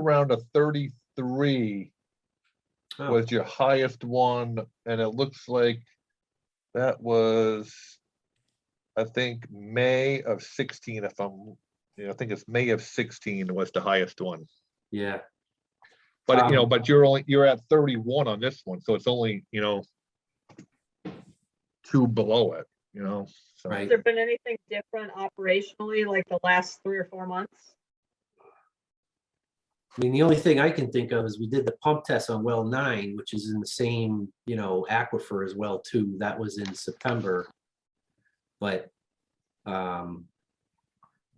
around a thirty-three Oh, was your highest one, and it looks like that was, I think, May of sixteen, if I'm, you know, I think it's May of sixteen was the highest one. Yeah, But, you know, Um, but you're only, you're at thirty-one on this one, so it's only, you know, two below it, you know, so. Right. Has there been anything different operationally, like the last three or four months? I mean, the only thing I can think of is we did the pump test on well nine, which is in the same, you know, aquifer as well too. That was in September. But, um,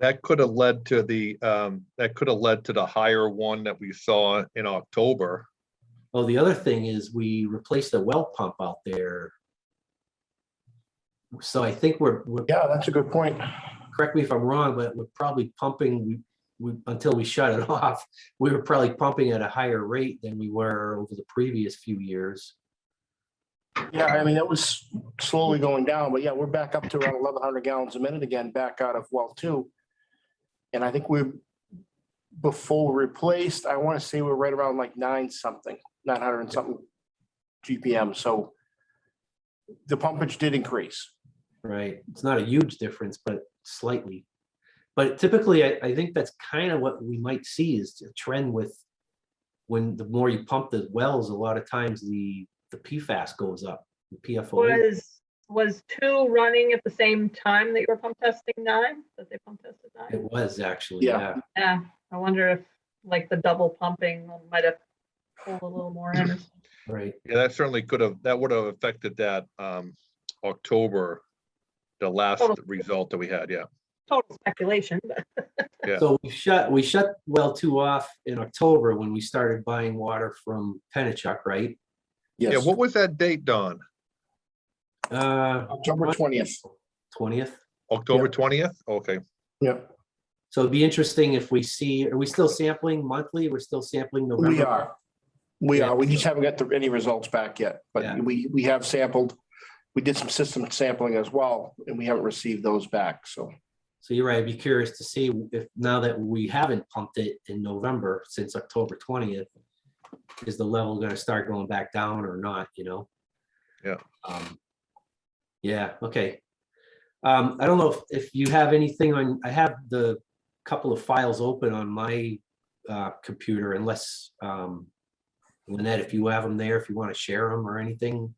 That could have led to the, um, that could have led to the higher one that we saw in October. oh, the other thing is we replaced a well pump out there. So I think we're, we're, Yeah, that's a good point. correct me if I'm wrong, but we're probably pumping, we, we, until we shut it off, we were probably pumping at a higher rate than we were over the previous few years. Yeah, I mean, that was slowly going down, but yeah, we're back up to around eleven hundred gallons a minute again, back out of well two. And I think we, before we replaced, I want to say we're right around like nine something, nine hundred and something GPM, so the pumpage did increase. Right, it's not a huge difference, but slightly. But typically, I, I think that's kind of what we might see is a trend with when the more you pump the wells, a lot of times the, the PFAS goes up, the PFOA. Was, was two running at the same time that you were pump testing nine, that they pump tested It nine? was actually, Yeah. yeah, Yeah, I wonder if like the double pumping might have pulled a little more in. right, Yeah, that certainly could have, that would have affected that um October, the last Total. result that we had, yeah. Total speculation, but Yeah. So we shut, we shut well two off in October when we started buying water from Penachuk, right? Yeah, Yes, what was that date, Don? Uh, October twentieth. twentieth. October twentieth? Okay, Yeah, So it'd be interesting if we see, are we still sampling monthly? We're still sampling November? we are. We Yeah. are. We just haven't got the- any results back yet, Yeah. but we, we have sampled. We did some system sampling as well, and we haven't received those back, so. So you're right, I'd be curious to see if, now that we haven't pumped it in November since October twentieth, is the level gonna start going back down or not, you know? Yeah. Um, Yeah, okay. Um, I don't know if, if you have anything on, I have the couple of files open on my uh, computer unless, um, Lynette, if you have them there, if you want to share them or anything.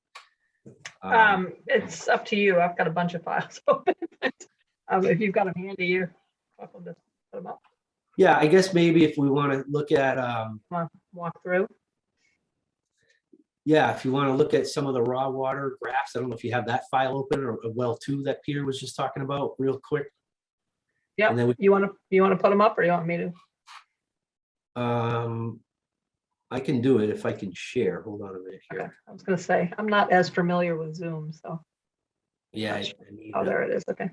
Uh. um, it's up to you. I've got a bunch of files open. but, Um, if you've got them handy, you're welcome to put them up, Yeah, I guess maybe if we want to look at, um, walk through. Yeah, if you want to look at some of the raw water graphs, I don't know if you have that file open or or well two that Peter was just talking about real quick. Yeah. And then we, You want to, you want to put them up or you want me to? um, I can do it if I can share. Hold on a minute Okay, here. I was gonna say, I'm not as familiar with Zoom, so, Yeah. I- Gotcha. I need oh, that. there it is, okay.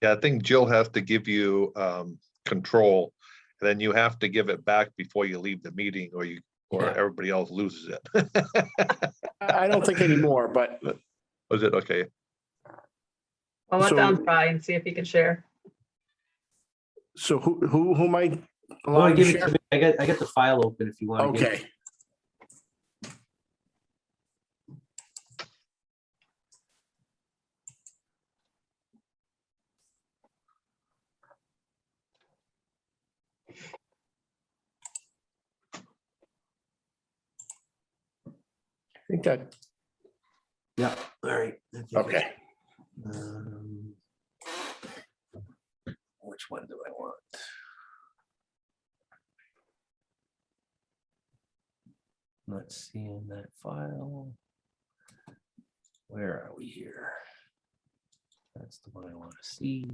yeah, I think Jill has to give you um control. And then you have to give it back before you leave the meeting or you, or Yeah. everybody else loses it. I I don't think anymore, but Was it, okay, Well, let Don So- try and see if he can share. so who, who, who might? I wanna allowed to give it share? to- I got, I got the file open if you want. Okay. I think that, Yeah, all right. I think it's- okay, Um, Which one do I want? Let's see in that file. Where are we here? That's the one I want to see.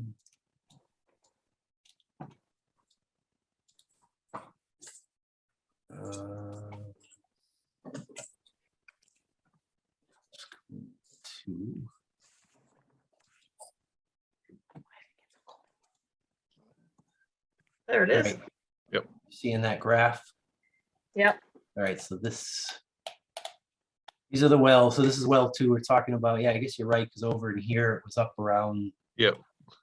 Uh, Two. There it is. Right. Yep. Seeing that graph? Yep. All right, so this. These are the wells, so this is well two we're talking about. Yeah, I guess you're right, because over in here it was up around. Yep.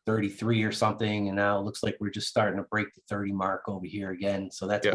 Thirty-three or something, and now it looks like we're just starting to break the thirty mark over here again, so that's Yep.